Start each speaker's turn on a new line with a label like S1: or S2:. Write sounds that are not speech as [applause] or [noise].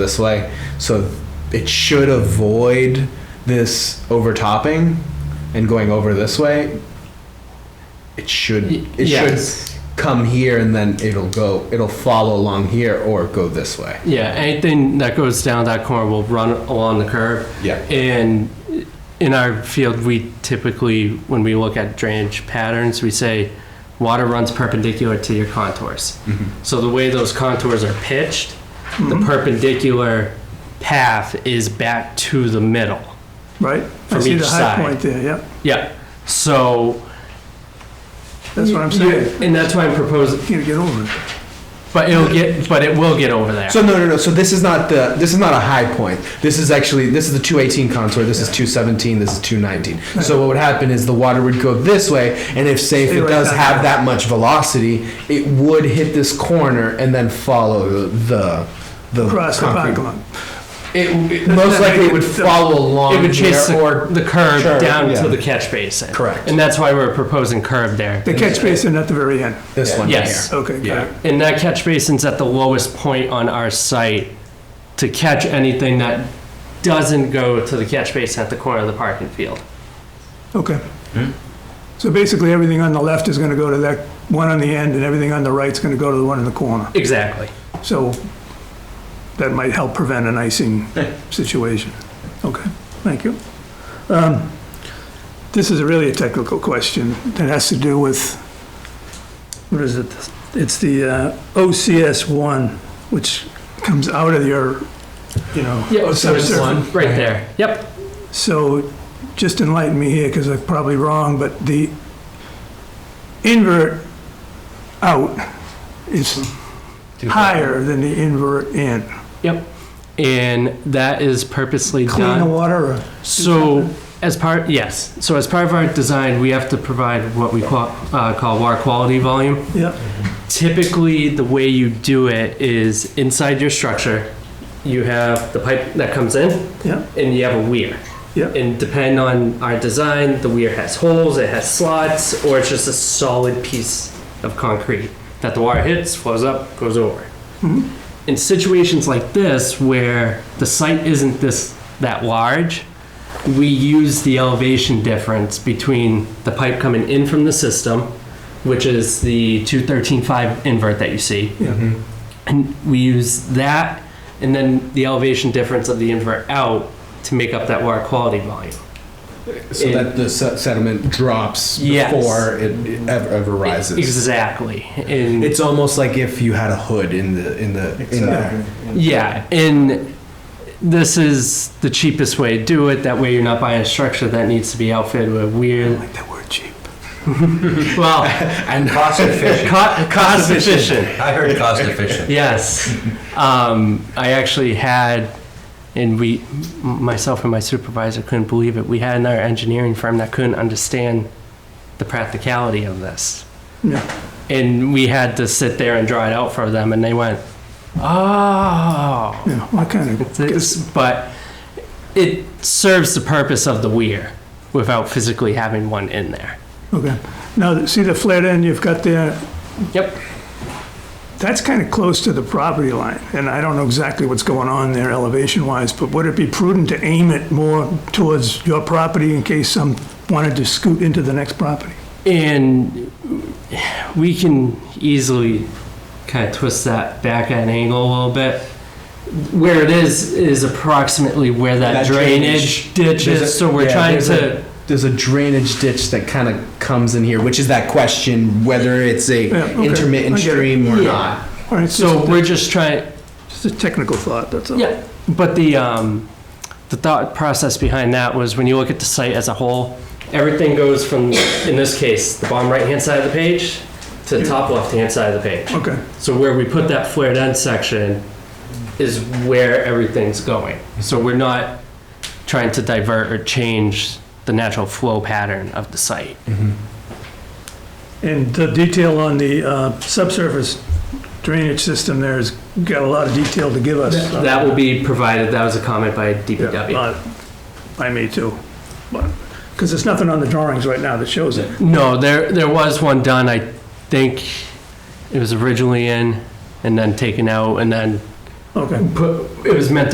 S1: this way. So it should avoid this overtopping and going over this way. It should
S2: Y-
S1: it
S2: yes.
S1: should come here and then it'll go it'll follow along here or go this way.
S2: Yeah, anything that goes down that corner will run along the curb.
S1: Yeah.
S2: And in our field, we typically, when we look at drainage patterns, we say water runs perpendicular to your contours.
S1: Mm-hmm.
S2: So the way those contours are pitched, the perpendicular path is back to the middle.
S3: right? I
S2: From
S3: see
S2: each
S3: the high
S2: side.
S3: point there, yeah.
S2: Yeah. So.
S3: That's what I'm saying.
S2: And that's why I'm proposing,
S3: Can't get over it.
S2: but it'll get, but it will get over there.
S1: So no no no. So this is not the this is not a high point. This is actually this is the 218 contour. This is 217. This is 219. So what would happen is the water would go this way, and if say if
S3: Stay
S1: it
S3: right
S1: does
S3: down
S1: have
S3: there.
S1: that much velocity, it would hit this corner and then follow the the
S3: Across the
S1: concrete
S3: parking lot.
S1: It, it most likely it would follow along
S2: It would chase
S1: here,
S2: the,
S1: or
S2: the curve
S1: Sure,
S2: down
S1: yeah.
S2: to the catch basin.
S1: Correct.
S2: And that's why we're proposing curve there.
S3: The catch basin at the very end.
S1: this one
S2: Yes.
S1: here.
S3: Okay, got it.
S2: And that catch basin's at the lowest point on our site to catch anything that doesn't go to the catch basin at the corner of the parking field.
S3: Okay. So basically, everything on the left is gonna go to that one on the end, and everything on the right's gonna go to the one in the corner.
S2: Exactly.
S3: So that might help prevent an icing situation. Okay, thank you. Um, This is really a technical question that has to do with, what is it? It's the uh, OCS1, which comes out of your, you know.
S2: Yeah,
S3: Oh, so it's one.
S2: Right there. Yep.
S3: So just enlighten me here, because I'm probably wrong, but the invert out is higher than the invert in.
S2: Yep. And that is purposely
S3: Cleaner
S2: done.
S3: water or?
S2: So as part, yes. So as part of our design, we have to provide what we call, uh, call water quality volume.
S3: Yeah,
S2: typically the way you do it is inside your structure you have the pipe that comes in
S3: yeah,
S2: and you have a weir
S3: yeah.
S2: and depending on our design the weir has holes it has slots or it's just a solid piece of concrete that the water hits flows up goes over in situations like this where the site isn't this that large we use the elevation difference between the pipe coming in from the system which is the 2135 invert that you see
S3: Yeah.
S2: and we use that and then the elevation difference of the invert out to make up that water quality volume
S1: So
S2: It-
S1: that the se- sediment drops
S2: Yes.
S1: before it, it ever, ever rises.
S2: exactly and
S1: It's almost like if you had a hood in the in the in there.
S2: yeah and this is the cheapest way to do it that way you're not buying a structure that needs to be outfitted with weird
S3: Like that word cheap.
S1: [laughs]
S2: well
S1: and
S4: Cost
S2: co-
S4: efficient.
S2: cost efficient
S4: I heard cost efficient.
S2: Yes. Um, I actually had, and we, myself and my supervisor couldn't believe it, we had another engineering firm that couldn't understand the practicality of this.
S3: Yeah.
S2: And we had to sit there and draw it out for them, and they went, oh.
S3: Yeah, what kind of,
S2: It's- But it serves the purpose of the weir without physically having one in there.
S3: okay. Now, see the flared end you've got there?
S2: Yep.
S3: That's kind of close to the property line, and I don't know exactly what's going on there elevation-wise, but would it be prudent to aim it more towards your property in case some wanted to scoot into the next property?
S2: And we can easily kind of twist that back at an angle a little bit. Where it is, is approximately where that
S1: That
S2: drainage ditch
S1: There's a-
S2: is, so we're
S1: yeah,
S2: trying
S1: there's
S2: to,
S1: [laughs] there's a drainage ditch that kind of comes in here, which is that question whether it's a
S3: Yeah, okay.
S1: intermittent
S3: I get it.
S1: stream or
S2: Yeah.
S1: not.
S3: All right,
S2: so
S3: so
S2: we're just trying,
S3: just a technical thought, that's all.
S2: yeah, but the, um, the thought process behind that was when you look at the site as a whole, everything goes from, in this case, the bottom right-hand side of the page to the top left-hand side of the page.
S3: Okay,
S2: So where we put that flared end section is where everything's going. So we're not trying to divert or change the natural flow pattern of the site.
S3: and the detail on the uh, subsurface drainage system there has got a lot of detail to give us.
S2: That will be provided, that was a comment by DPW.
S3: Uh, By me too, because there's nothing on the drawings right now that shows it.
S2: No, there, there was one done, I think it was originally in and then taken out and then
S3: Okay.
S2: Put, it was meant to